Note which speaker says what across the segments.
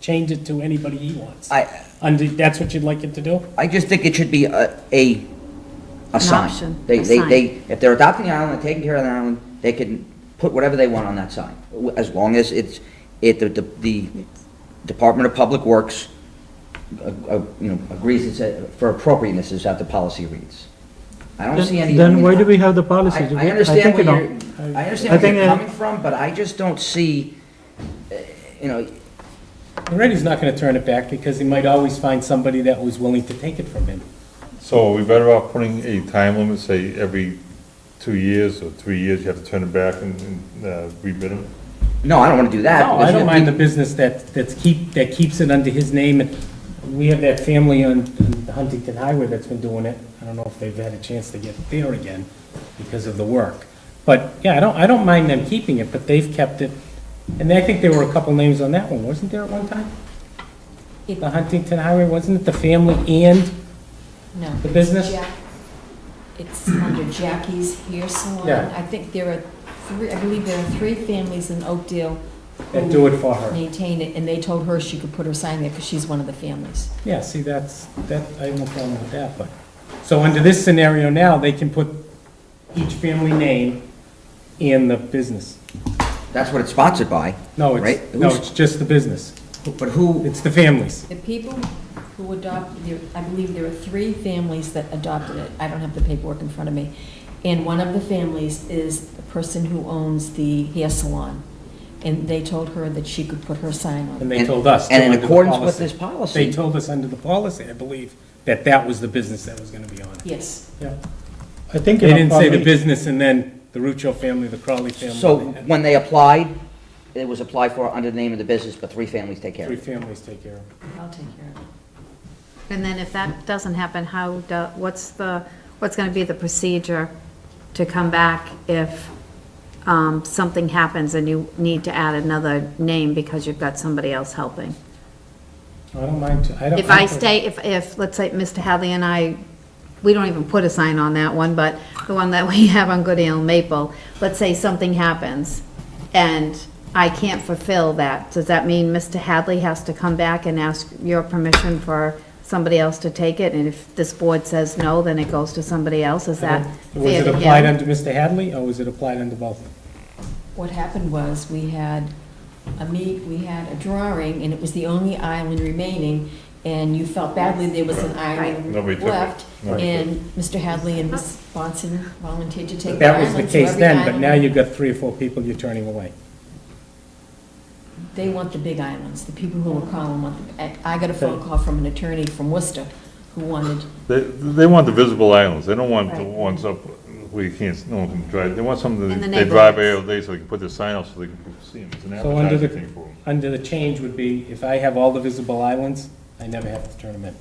Speaker 1: change it to anybody he wants.
Speaker 2: I,
Speaker 1: And that's what you'd like it to do?
Speaker 2: I just think it should be a, a, a
Speaker 3: option,
Speaker 2: sign. They,
Speaker 3: a
Speaker 2: they,
Speaker 3: sign.
Speaker 2: they, if they're adopting the island, and taking care of the island, they can put whatever they want on that sign, w- as long as it's, it, the, the Department of Public Works, uh, uh, you know, agrees it's, a- for appropriateness is how the policy reads. I don't see any.
Speaker 4: Then why do we have the policy?
Speaker 2: I-
Speaker 4: Do
Speaker 2: I
Speaker 4: we- think
Speaker 2: understand where
Speaker 4: you know.
Speaker 2: you're, I
Speaker 4: I
Speaker 2: understand where
Speaker 4: think,
Speaker 2: you're
Speaker 4: uh,
Speaker 2: coming from, but I just don't see, uh, you know,
Speaker 1: Loretti's not gonna turn it back because he might always find somebody that was willing to take it from him.
Speaker 5: So are we better off putting a time limit, say every two years or three years, you have to turn it back and, and uh, rebid it?
Speaker 2: no, I don't want to do that.
Speaker 1: No, I
Speaker 2: because
Speaker 1: don't
Speaker 2: if
Speaker 1: mind the
Speaker 2: we-
Speaker 1: business that, that's keep, that keeps it under his name. And We have that family on on Huntington Highway that's been doing it. I don't know if they've had a chance to get there again because of the work. But, yeah, I don't, I don't mind them keeping it, but they've kept it. And I think there were a couple names on that one, wasn't there at one time? The Huntington Highway, wasn't it the family and
Speaker 6: No.
Speaker 1: the business?
Speaker 6: Jack- It's under Jackie's Hair Salon.
Speaker 1: Yeah.
Speaker 6: I think there are three, I believe there are three families in Oakdale.
Speaker 1: That
Speaker 6: who
Speaker 1: do it for her.
Speaker 6: Maintain it, and they told her she could put her sign there because she's one of the families.
Speaker 1: Yeah, see, that's, that, I have no problem with that, but, so under this scenario now, they can put each family name and the business.
Speaker 2: That's what it's sponsored by.
Speaker 1: No,
Speaker 2: right?
Speaker 1: it's, no,
Speaker 2: Who's-
Speaker 1: it's just the business.
Speaker 2: But who,
Speaker 1: It's the families.
Speaker 6: The people who adopted, there- I believe there were three families that adopted it. I don't have the paperwork in front of me. And one of the families is the person who owns the hair salon. And they told her that she could put her sign on.
Speaker 1: And they
Speaker 2: And-
Speaker 1: told us.
Speaker 2: and in
Speaker 1: under the
Speaker 2: accordance with this policy-
Speaker 1: They told us under the policy, I believe, that that was the business that was gonna be on it.
Speaker 6: Yes.
Speaker 1: Yeah.
Speaker 4: I think.
Speaker 1: They
Speaker 4: you know,
Speaker 1: didn't say the
Speaker 4: probably-
Speaker 1: business and then the Ruccio family, the Crowley family.
Speaker 2: So
Speaker 1: they had
Speaker 2: when they applied, it was applied for under the name of the business, but three families take care of
Speaker 1: Three
Speaker 2: it.
Speaker 1: families take care of it.
Speaker 6: I'll take care of it.
Speaker 3: And then if that doesn't happen, how, do- what's the, what's going to be the procedure to come back if um, something happens and you need to add another name because you've got somebody else helping?
Speaker 1: I don't mind, to- I don't.
Speaker 3: If I
Speaker 1: don't-
Speaker 3: stay, if, if, let's say, Mr. Hadley and I, we don't even put a sign on that one, but the one that we have on Good Ale Maple, let's say something happens and I can't fulfill that, does that mean Mr. Hadley has to come back and ask your permission for somebody else to take it? And if this board says no, then it goes to somebody else, is that
Speaker 1: Was
Speaker 3: fair
Speaker 1: it
Speaker 3: to him?
Speaker 1: applied under Mr. Hadley or was it applied under both?
Speaker 6: What happened was, we had a meet, we had a drawing, and it was the only island remaining, and you felt badly there was an island
Speaker 5: Nobody took it.
Speaker 6: left,
Speaker 5: Nobody took
Speaker 6: and Mr. Hadley and Ms. Bonson volunteered to take the
Speaker 1: That was
Speaker 6: island.
Speaker 1: the
Speaker 6: so
Speaker 1: case
Speaker 6: every
Speaker 1: then, but
Speaker 6: island-
Speaker 1: now you've got three or four people you're turning away.
Speaker 6: They want the big islands, the people who were calling want, the- I I got a phone call from an attorney from Worcester who wanted,
Speaker 5: They, they want the visible islands, they don't want the
Speaker 3: Right.
Speaker 5: ones up where you can't, no one can drive, they want something
Speaker 3: In the
Speaker 5: that they drive every
Speaker 3: neighborhoods.
Speaker 5: day so they can put their sign up so they can see them, it's an
Speaker 1: So under
Speaker 5: advertising
Speaker 1: the,
Speaker 5: thing for them.
Speaker 1: under the change would be, if I have all the visible islands, I never have to turn them in.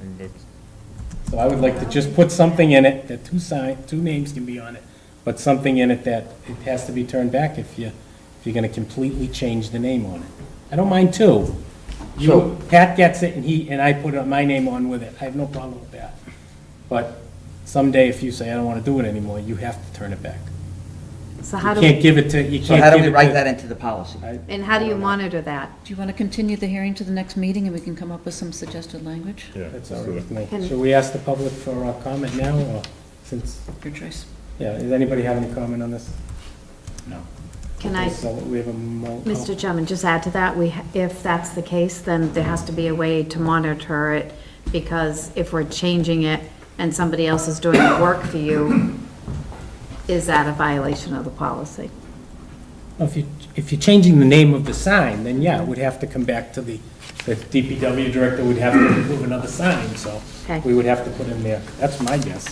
Speaker 5: And that's-
Speaker 1: So I would like to just put something in it, that two sign, two names can be on it, but something in it that it has to be turned back if you, if you're gonna completely change the name on it. I don't mind two.
Speaker 2: So-
Speaker 1: You, Pat gets it and he, and I put my name on with it, I have no problem with that. But someday if you say, I don't wanna do it anymore, you have to turn it back.
Speaker 3: So
Speaker 1: You
Speaker 3: how do,
Speaker 1: can't
Speaker 3: we-
Speaker 1: give it to, you can't give it to.
Speaker 2: So how do we write that into the policy?
Speaker 1: I-
Speaker 3: and how do you monitor that?
Speaker 7: Do you want to continue the hearing to the next meeting and we can come up with some suggested language?
Speaker 5: Yeah.
Speaker 1: That's
Speaker 5: let's
Speaker 1: all
Speaker 5: do
Speaker 1: right
Speaker 5: that.
Speaker 1: with me.
Speaker 3: Can-
Speaker 1: Should we ask the public for uh comment now, or since,
Speaker 7: Your choice.
Speaker 1: yeah, does anybody have any comment on this? No.
Speaker 3: Can I-
Speaker 1: So we have a mo- oh.
Speaker 3: Mr. Chairman, just add to that, we, ha- if that's the case, then there has to be a way to monitor it, because if we're changing it and somebody else is doing the work for you, is that a violation of the policy?
Speaker 1: If you, if you're changing the name of the sign, then yeah, it would have to come back to the, the DPW director would have to approve another sign, so
Speaker 3: Okay.
Speaker 1: we would have to put in there. That's my guess.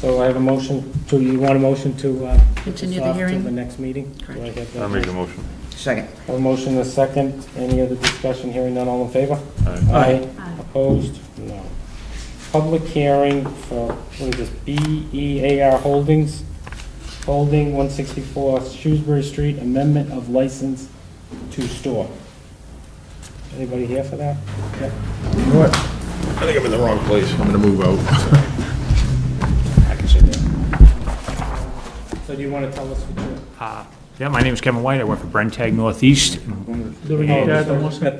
Speaker 1: So I have a motion to, you want a motion to, uh, put this
Speaker 7: Continue the
Speaker 1: off to
Speaker 7: hearing?
Speaker 1: the next meeting? Do I
Speaker 7: Correct.
Speaker 1: get that?
Speaker 5: I'll make a motion.
Speaker 2: Second,
Speaker 1: A motion, a second. Any other discussion? Hearing none, all in favor?
Speaker 5: Aye.
Speaker 1: Aye.
Speaker 3: Aye.
Speaker 1: Opposed? No. Public hearing for, what is this, BEAR Holdings, Holding 164 Shrewsbury Street, amendment of license to store. Anybody here for that? Yeah.
Speaker 8: I think I'm in the wrong place. I'm gonna move out.
Speaker 1: So do you want to tell us what
Speaker 9: Yeah, my name is Kevin White. I work for Brentag Northeast.
Speaker 1: you're...
Speaker 4: Yeah, the
Speaker 1: Got that